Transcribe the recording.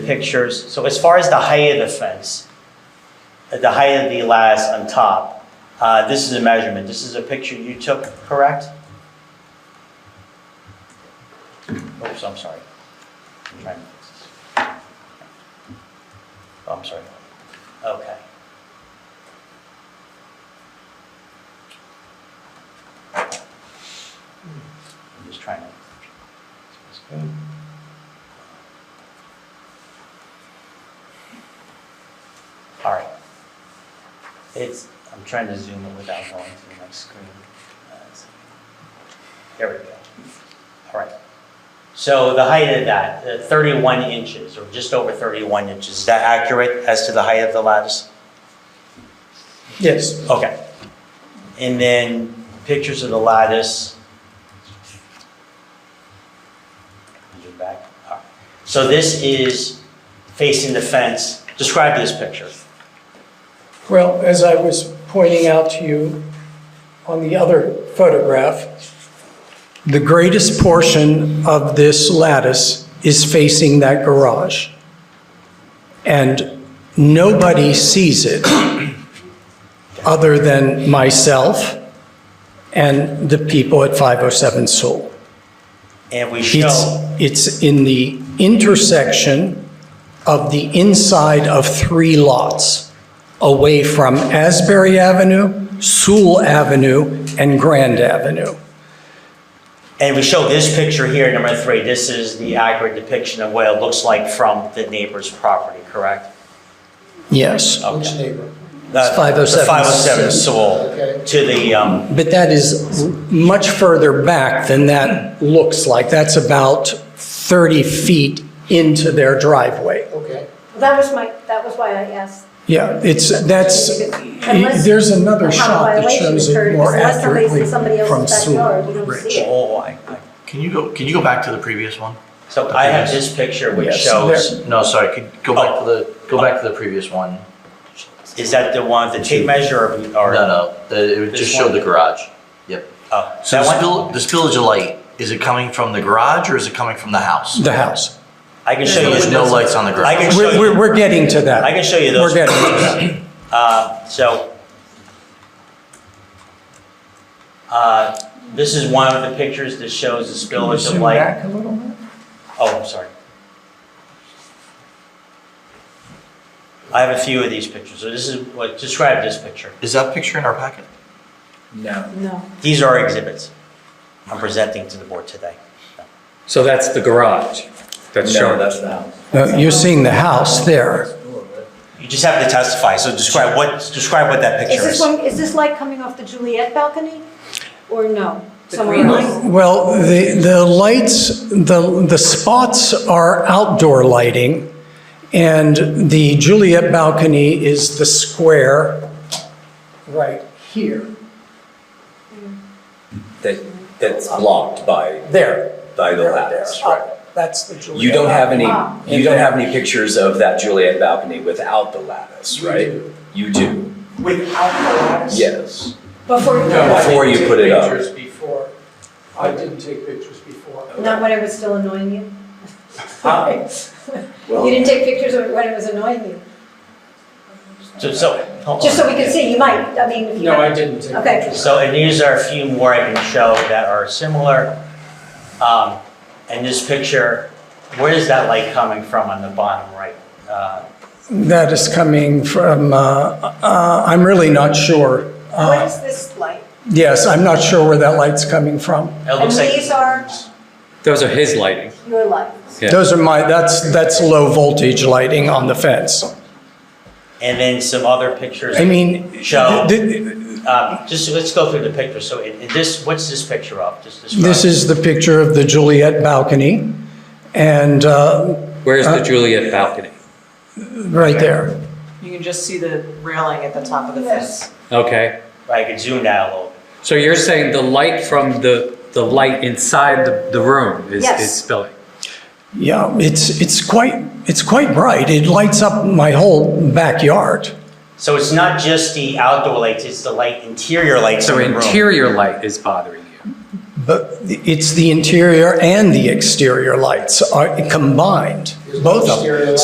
pictures. So as far as the height of the fence, uh, the height of the lattice on top, uh, this is a measurement. This is a picture you took, correct? Oops, I'm sorry. I'm trying to fix this. Oh, I'm sorry. Okay. I'm just trying to. All right. It's, I'm trying to zoom it without going through my screen. Uh, it's- There we go. All right. So the height of that, uh, 31 inches, or just over 31 inches, is that accurate as to the height of the lattice? Yes. Okay. And then pictures of the lattice. You're back. All right. So this is facing the fence. Describe this picture. Well, as I was pointing out to you on the other photograph, the greatest portion of this lattice is facing that garage. And nobody sees it other than myself and the people at 507 Sewell. And we It's, show, it's in the intersection of the inside of three lots, away from Asbury Avenue, Sewell Avenue, and Grand Avenue. and we show this picture here, number three. This is the accurate depiction of what it looks like from the neighbor's property, correct? Yes, Which neighbor? The- 507. The 507 Sewell Okay. to the, um, but that is much further back than that looks like. That's about 30 feet into their driveway. Okay. That was my, that was why I asked. Yeah, it's, that's, Unless there's another a shot that violation shows occurred, it more because unless somebody's accurately in somebody from else's backyard, we Sewell don't Ridge. see it. oh, I, I- Can you go, can you go back to the previous one? so I have this picture which Yes, shows, No, sorry, could, go back to the, go back to the previous one. is that the one, the tape measure or? No, no, the- it would just This showed one? the garage. Yep. Oh, So that the one? spill, the spillage of light, is it coming from the garage or is it coming from the house? The house. I can show you. There's no lights on the I garage. can show We're, we're, you, we're getting to that. I can show you those. We're getting Uh, so, uh, this is one of the pictures that shows the spillage of light. a little bit? Oh, I'm sorry. I have a few of these pictures, so this is, what describe this picture. Is that picture in our packet? No. No. These are exhibits I'm presenting to the board today. So that's the garage that's shown? the house. No, Uh, you're seeing the house there. You just have to testify, so describe what, describe what that Is picture this is. one, is this light coming off the Juliet balcony or no? Somewhere else? Well, the, the lights, the, the spots are outdoor lighting, and the Juliet balcony is the square right here. that, that's blocked by, There. by the There. lattice, Up. right? That's the Juliet. You don't have any, Ah. you don't have any pictures of that Juliet balcony without the lattice, right? You do, Without the lattice? yes. Before, No. not Before you put it up. I didn't take pictures before. I didn't take pictures before. when it was still annoying you? Ah. Huh? You didn't take pictures of it when it was annoying you? So, so, hold Just on. so we could see, you might, I mean, if you. No, I didn't take Okay. pictures. So, and these are a few more I can show that are similar. Um, and this picture, where is that light coming from on the bottom right? Uh, That is coming from, uh, uh, I'm really not sure. What is this light? Yes, I'm not sure where that light's coming from. It looks And like. these are Those are his lighting. your lights. Yeah. Those are my, that's, that's low voltage lighting on the fence. And then some other pictures. I mean, Show. th- th- Um, just, let's go through the picture. So it, it- this, what's this picture of? Just describe. this is the picture of the Juliet balcony, and uh, Where's the Juliet balcony? right there. You can just see the railing at the top of the fence. Okay, I could zoom that a little bit. so you're saying the light from the, the light inside the, the room is, Yes. is spilling? Yeah, it's, it's quite, it's quite bright. It lights up my whole backyard. So it's not just the outdoor lights, it's the light, interior lights in So the room. interior light is bothering you? But it's the interior and the exterior lights are combined, both of them.